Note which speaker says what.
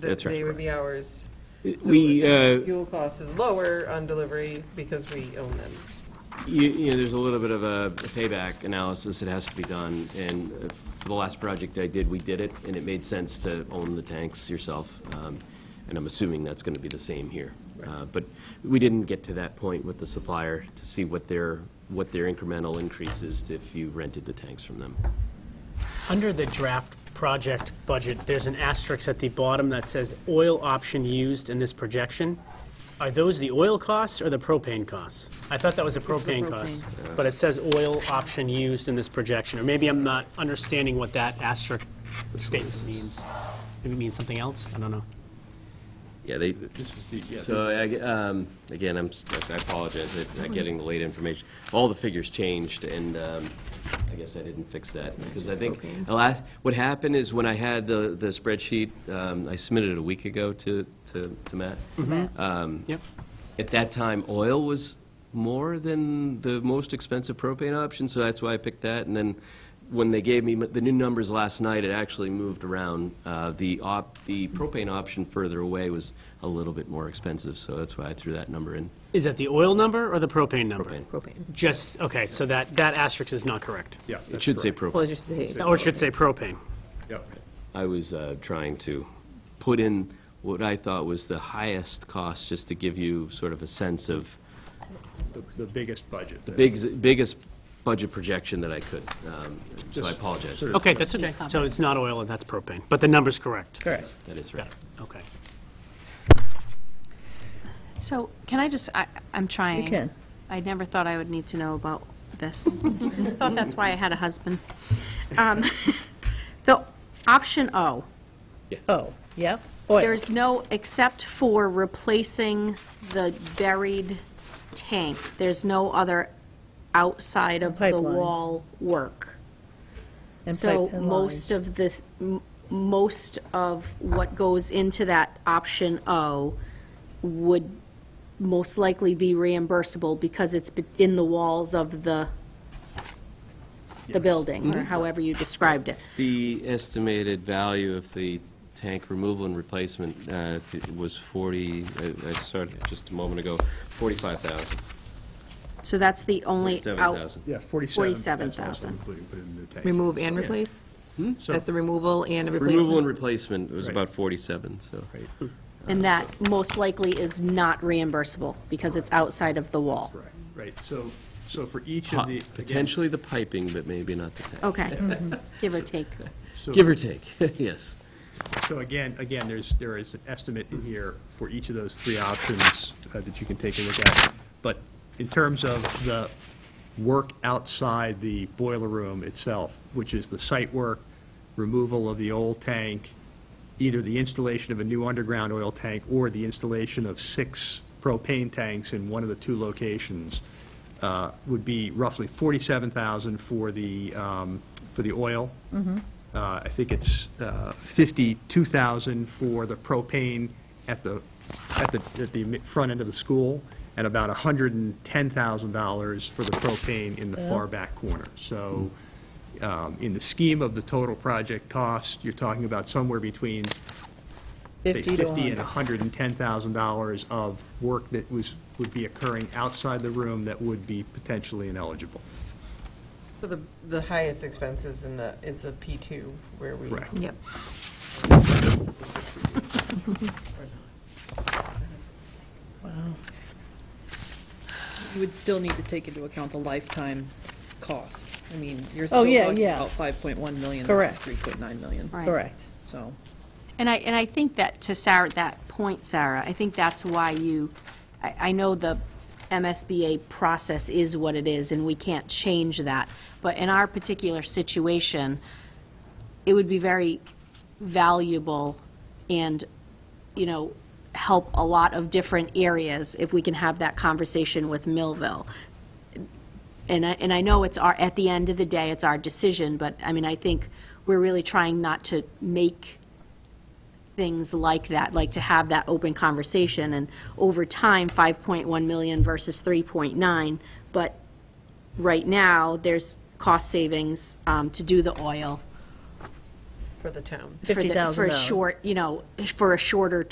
Speaker 1: that
Speaker 2: That's right.
Speaker 1: they would be ours. So
Speaker 2: We,
Speaker 1: the
Speaker 2: uh,
Speaker 1: Fuel cost is lower on delivery because we own them.
Speaker 2: You, you know, there's a little bit of a payback analysis that has to be done, and uh, for the last project I did, we did it, and it made sense to own the tanks yourself, um, and I'm assuming that's gonna be the same here. Uh, But we didn't get to that point with the supplier to see what their, what their incremental increase is if you rented the tanks from them.
Speaker 3: Under the draft project budget, there's an asterisk at the bottom that says oil option used in this projection. Are those the oil costs or the propane costs? I thought that was the propane cost, but it says oil option used in this projection, or maybe I'm not understanding what that asterisk statement means. Maybe it means something else, I don't know.
Speaker 2: Yeah, they,
Speaker 4: This is the, yeah.
Speaker 2: So, I- um, again, I'm, I apologize, I'm not getting the late information. All the figures changed, and um, I guess I didn't fix that, because I think, the last- what happened is when I had the the spreadsheet, um, I submitted it a week ago to, to to Matt.
Speaker 3: Yep.
Speaker 2: At that time, oil was more than the most expensive propane option, so that's why I picked that. And then when they gave me m- the new numbers last night, it actually moved around. Uh, The op, the propane option further away was a little bit more expensive, so that's why I threw that number in.
Speaker 3: Is that the oil number or the propane number?
Speaker 2: Propane.
Speaker 5: propane.
Speaker 3: Just, okay, so that, that asterisk is not correct.
Speaker 4: Yeah,
Speaker 2: It
Speaker 4: that's
Speaker 2: should say propane.
Speaker 4: correct.
Speaker 5: Well, it's just the,
Speaker 3: Or it should say propane.
Speaker 4: Yeah.
Speaker 2: I was uh, trying to put in what I thought was the highest cost, just to give you sort of a sense of
Speaker 4: The- the biggest budget.
Speaker 2: the big, biggest budget projection that I could. Um, So I
Speaker 4: Just
Speaker 2: apologize.
Speaker 4: sort of-
Speaker 3: Okay, that's okay. So it's not oil and that's propane, but the number's correct.
Speaker 5: correct.
Speaker 2: That is
Speaker 3: Got
Speaker 2: right.
Speaker 3: it, okay.
Speaker 6: So can I just, I, I'm trying.
Speaker 5: can.
Speaker 6: I never thought I would need to know about this. Thought that's why I had a husband. Um, The option O,
Speaker 5: Oh, yep, oil.
Speaker 6: there's no, except for replacing the buried tank, there's no other outside of the
Speaker 5: Pipelines.
Speaker 6: wall work.
Speaker 5: and
Speaker 6: So
Speaker 5: pipe and
Speaker 6: most
Speaker 5: lines.
Speaker 6: of the, th- m- most of what goes into that option O would most likely be reimbursable because it's be- in the walls of the, the building,
Speaker 5: Mm-hmm.
Speaker 6: or however you described it.
Speaker 2: The estimated value of the tank removal and replacement uh, was 40, I- I started just a moment ago, 45,000.
Speaker 6: So that's the only out.
Speaker 2: 47,000.
Speaker 4: Yeah, 47. That's also
Speaker 6: 47,000.
Speaker 4: included within the tank.
Speaker 5: Remove and
Speaker 2: Yeah.
Speaker 5: replace?
Speaker 4: So-
Speaker 5: That's the removal and replacement?
Speaker 2: Removal and replacement was
Speaker 4: Right.
Speaker 2: about 47, so.
Speaker 4: Right,
Speaker 6: And that most likely is not reimbursable because it's outside of the wall.
Speaker 4: right, right. So, so for each
Speaker 2: Po-
Speaker 4: of the. again,
Speaker 2: Potentially the piping, but maybe not the tank.
Speaker 6: Okay,
Speaker 5: Mm-hmm.
Speaker 6: give or take.
Speaker 4: so-
Speaker 2: Give or take, yes.
Speaker 4: So again, again, there's, there is an estimate in here for each of those three options uh, that you can take a look at. But in terms of the work outside the boiler room itself, which is the site work, removal of the old tank, either the installation of a new underground oil tank or the installation of six propane tanks in one of the two locations, uh, would be roughly 47,000 for the, um, for the oil. Uh, I think it's uh, 52,000 for the propane at the, at the, at the mi- front end of the school, and about $110,000 for the propane in the far back corner. So um, in the scheme of the total project cost, you're talking about somewhere between say,
Speaker 5: 50 to
Speaker 4: 50 and
Speaker 5: 100.
Speaker 4: $110,000 of work that was, would be occurring outside the room that would be potentially ineligible.
Speaker 1: So the, the highest expense is in the, is the P2 where we.
Speaker 4: Correct.
Speaker 5: Yep.
Speaker 7: You would still need to take into account the lifetime cost. I mean, you're
Speaker 5: Oh,
Speaker 7: still
Speaker 5: yeah,
Speaker 7: talking
Speaker 5: yeah.
Speaker 7: about 5.1 million
Speaker 5: Correct.
Speaker 7: versus 3.9 million.
Speaker 6: Right.
Speaker 5: Correct.
Speaker 7: So,
Speaker 6: And I, and I think that, to Sarah, that point, Sarah, I think that's why you, I, I know the MSBA process is what it is, and we can't change that, but in our particular situation, it would be very valuable and, you know, help a lot of different areas if we can have that conversation with Millville. And I, and I know it's our, at the end of the day, it's our decision, but, I mean, I think we're really trying not to make things like that, like to have that open conversation, and over time, 5.1 million versus 3.9, but right now, there's cost savings um, to do the oil
Speaker 1: for the town.
Speaker 6: for the- For a
Speaker 5: $50,000.
Speaker 6: short, you know, for a shorter